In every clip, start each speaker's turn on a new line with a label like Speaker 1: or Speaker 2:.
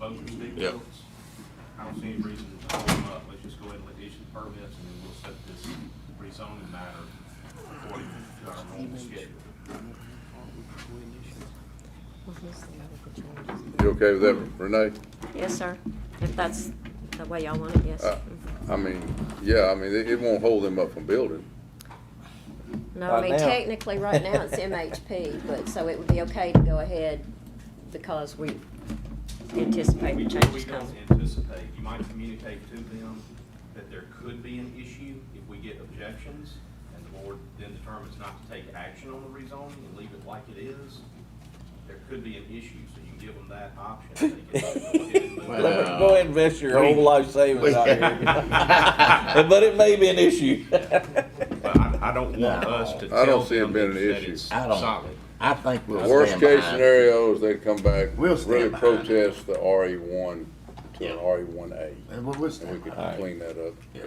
Speaker 1: Yep.
Speaker 2: builds. I don't see any reason to hold them up, let's just go ahead and let issue the permits, and then we'll set this rezoning matter according to our normal schedule.
Speaker 3: You okay with that, Renee?
Speaker 4: Yes, sir. If that's the way y'all want it, yes.
Speaker 3: Uh, I mean, yeah, I mean, it, it won't hold them up from building.
Speaker 4: No, I
Speaker 5: Right
Speaker 4: mean,
Speaker 5: now.
Speaker 4: technically, right now, it's MHP, but, so it would be okay to go ahead because we anticipate
Speaker 2: We,
Speaker 4: the
Speaker 2: we
Speaker 4: changes
Speaker 2: don't
Speaker 4: coming.
Speaker 2: anticipate, you might communicate to them that there could be an issue if we get objections, and the board then determines not to take action on the rezoning and leave it like it is. There could be an issue, so you can give them that option. They can go ahead and move
Speaker 5: Let
Speaker 2: it.
Speaker 5: me go ahead and invest your whole life savings out here. But it may be an issue.
Speaker 2: But I, I don't want us to
Speaker 3: No. I don't
Speaker 2: tell
Speaker 3: see it
Speaker 2: them
Speaker 3: being an
Speaker 2: that
Speaker 3: issue.
Speaker 2: it's
Speaker 5: I don't.
Speaker 2: solid. Mm-hmm.
Speaker 5: I think we'll
Speaker 3: Worst
Speaker 5: stand
Speaker 3: case
Speaker 5: behind. it.
Speaker 3: scenario is they come back,
Speaker 6: We'll stand
Speaker 3: really
Speaker 6: behind it.
Speaker 3: protest the RE one to an RE one A.
Speaker 6: And what was
Speaker 3: And we could
Speaker 6: that?
Speaker 5: Alright.
Speaker 3: clean that up,
Speaker 6: Yeah.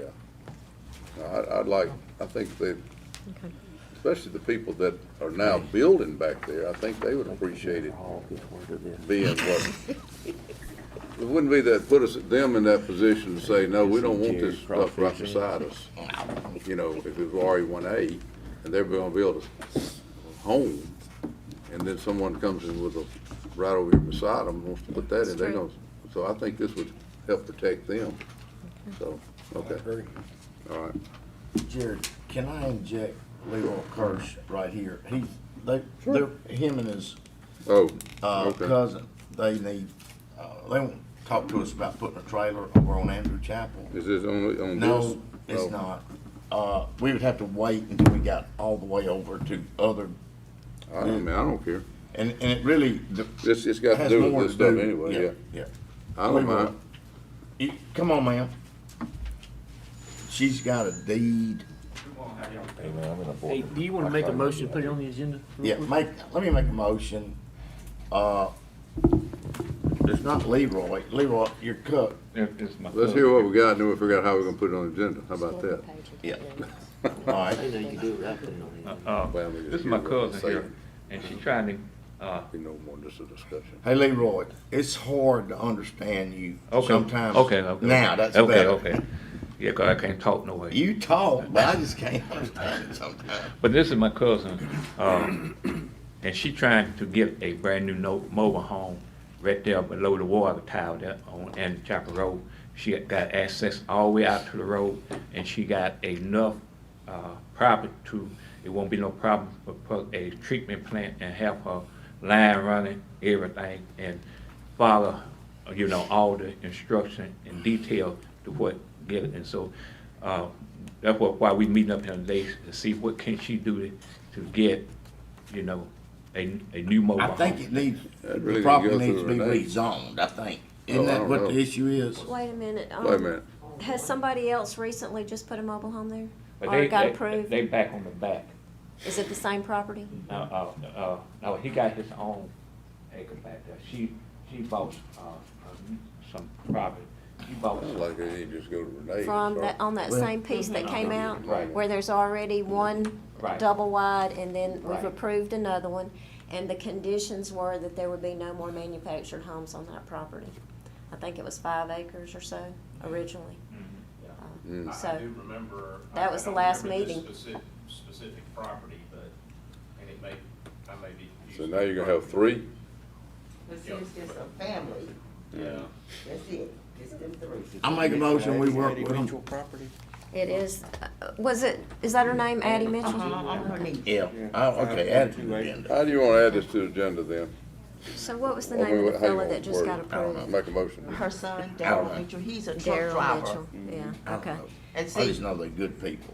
Speaker 3: yeah. No, I, I'd like, I think they,
Speaker 4: Okay.
Speaker 3: especially the people that are now building back there, I think they would appreciate it being what. It wouldn't be that, put us, them in that position to say, no, we don't want this stuff right beside us. You know, if it was RE one A, and they're gonna build a home, and then someone comes in with a, right over here beside them, wants to put that in, they're
Speaker 4: That's
Speaker 3: gonna, so I think this would help protect them, so, okay, all right.
Speaker 6: Jared, can I inject Leroy Kirsch right here? He's, they, they're, him and his,
Speaker 3: Oh,
Speaker 6: uh,
Speaker 3: okay,
Speaker 6: cousin, they need, uh, they won't talk to us about putting a trailer over on Andrew Chapel.
Speaker 3: is this on, on this?
Speaker 6: No,
Speaker 3: Oh.
Speaker 6: it's not. Uh, we would have to wait until we got all the way over to other,
Speaker 3: I don't, mean, I don't care,
Speaker 6: and, and it really, the.
Speaker 3: it's, it's got to
Speaker 6: has
Speaker 3: do
Speaker 6: more
Speaker 3: with this stuff anyway, yeah,
Speaker 6: Yeah.
Speaker 3: I don't mind,
Speaker 6: You- Come on, ma'am. She's got a deed.
Speaker 5: Hey, man, I'm in a board
Speaker 7: Hey, do you wanna make a motion, to put it on the agenda? real
Speaker 6: Yeah,
Speaker 3: Mm-hmm.
Speaker 7: quick?
Speaker 6: make, let me make a motion. Uh, it's not Leroy. Leroy, your cook.
Speaker 3: let's hear what we got, and then we'll figure out how we're gonna put it on the agenda, how about that?
Speaker 6: Yeah.
Speaker 4: that?
Speaker 6: All right.
Speaker 7: I know you can do it without putting it on the agenda.
Speaker 8: Uh,
Speaker 3: Well, we just
Speaker 8: this is my
Speaker 3: hear what
Speaker 8: cousin
Speaker 3: they
Speaker 8: here,
Speaker 3: say.
Speaker 8: and she trying to, uh,
Speaker 3: We know more, just a discussion.
Speaker 6: Hey, Leroy, it's hard to understand you
Speaker 8: okay.
Speaker 6: sometimes.
Speaker 8: Okay, okay.
Speaker 6: Now, that's
Speaker 8: Okay,
Speaker 6: better.
Speaker 8: okay. Yeah, 'cause I can't talk no way.
Speaker 6: You talk, but I just can't understand it sometimes.
Speaker 8: But this is my cousin, um, and she trying to get a brand new no, mobile home right there below the water tower there on Andy Chapel Road. She got access all the way out to the road, and she got enough, uh, property to, it won't be no problem for put a treatment plant and have her line running, everything, and follow, you know, all the instruction and detail to what get it. And so, uh, that's what, why we meeting up here today, to see what can she do to get, you know, a, a new mobile
Speaker 6: I
Speaker 8: home.
Speaker 6: think it needs,
Speaker 3: Oh, That
Speaker 6: the
Speaker 3: really
Speaker 6: property
Speaker 3: goes through
Speaker 6: needs to be
Speaker 3: Renee.
Speaker 6: rezoned, I think.
Speaker 3: Oh,
Speaker 6: Isn't
Speaker 3: I
Speaker 6: that
Speaker 3: don't
Speaker 6: what the
Speaker 3: know.
Speaker 6: issue is?
Speaker 4: Wait a minute. um,
Speaker 3: Wait a minute,
Speaker 4: Has somebody else recently just put a mobile home there?
Speaker 8: But
Speaker 4: Or
Speaker 8: they-
Speaker 4: got
Speaker 8: they-
Speaker 4: approved?
Speaker 8: They back on the back.
Speaker 4: Is it the same property?
Speaker 8: Now, uh, uh, no, he got his own acre back there. She, she bought, uh, uh, some property. She bought
Speaker 3: I
Speaker 8: some.
Speaker 3: like it, you just go to Renee. and
Speaker 4: From
Speaker 3: start.
Speaker 4: that, on that
Speaker 6: Well-
Speaker 4: same piece that came out?
Speaker 8: Right.
Speaker 4: Where there's already one
Speaker 8: Right.
Speaker 4: double wide and then we've
Speaker 8: Right.
Speaker 4: approved another one. And the conditions were that there would be no more manufactured homes on that property. I think it was five acres or so originally.
Speaker 3: Mm.
Speaker 2: I- I
Speaker 4: So-
Speaker 2: do remember. I-
Speaker 4: That
Speaker 2: I
Speaker 4: was the
Speaker 2: don't
Speaker 4: last
Speaker 2: remember this
Speaker 4: meeting.
Speaker 2: Specific, specific property, but, and it may, I may be.
Speaker 3: So
Speaker 2: confusing
Speaker 3: now you're
Speaker 2: the
Speaker 3: gonna have three?
Speaker 9: This is just a family,
Speaker 3: Yeah.
Speaker 9: that's it, just them three.
Speaker 6: I make a motion, we work with them.
Speaker 7: Individual property.
Speaker 4: It is, uh, was it, is that her name, Addie Mitchell?
Speaker 9: Uh-huh, I'm gonna need.
Speaker 6: Yeah, oh, okay, add it to the agenda.
Speaker 3: How do you wanna add this to the agenda then?
Speaker 4: So what was the
Speaker 3: Or we-
Speaker 4: name of the
Speaker 3: how you
Speaker 4: fella
Speaker 3: wanna
Speaker 4: that just
Speaker 3: word
Speaker 4: got
Speaker 3: it? I don't know.
Speaker 4: approved?
Speaker 3: Make a motion.
Speaker 9: Her son,
Speaker 6: Alright.
Speaker 9: Daryl Mitchell, he's a truck
Speaker 4: Daryl
Speaker 9: driver. Oh,
Speaker 4: Mitchell, yeah,
Speaker 6: I don't
Speaker 4: okay.
Speaker 6: know.
Speaker 9: And
Speaker 6: I just
Speaker 9: see,
Speaker 6: know they're good people.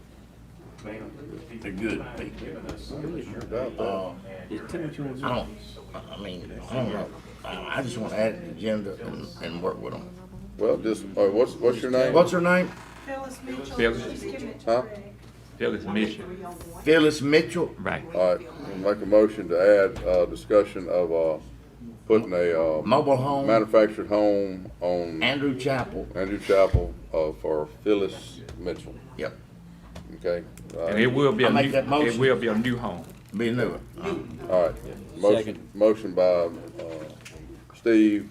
Speaker 2: Ma'am, if you
Speaker 6: They're good
Speaker 2: mind
Speaker 6: people.
Speaker 2: giving us some of your
Speaker 3: doubt that.
Speaker 6: Uh,
Speaker 2: and your
Speaker 7: Just tell me what you wanna do.
Speaker 6: I don't, I mean, I don't know. I I just want to add it to the agenda and, and work with them.
Speaker 3: Well, just, all right, what's, what's your name?
Speaker 6: What's her name?
Speaker 10: Phyllis Mitchell,
Speaker 8: Phyllis.
Speaker 10: she's giving it to
Speaker 3: Huh?
Speaker 10: Greg.
Speaker 8: Tell his mission.
Speaker 10: Three on one.
Speaker 6: Phyllis Mitchell?
Speaker 8: Right.
Speaker 3: All right, we'll make a motion to add, uh, discussion of, uh, putting a, uh,
Speaker 6: Mobile home,
Speaker 3: manufactured home on
Speaker 6: Andrew Chapel.
Speaker 3: Andrew Chapel, uh, for Phyllis Mitchell,
Speaker 6: Yep,
Speaker 3: okay? Uh, All
Speaker 8: And
Speaker 3: right,
Speaker 8: it will be
Speaker 6: I
Speaker 8: a
Speaker 6: make
Speaker 8: new,
Speaker 6: that motion.
Speaker 8: it will be a new home.
Speaker 6: be a new one.
Speaker 3: all right. Motion, motion by, uh, Steve,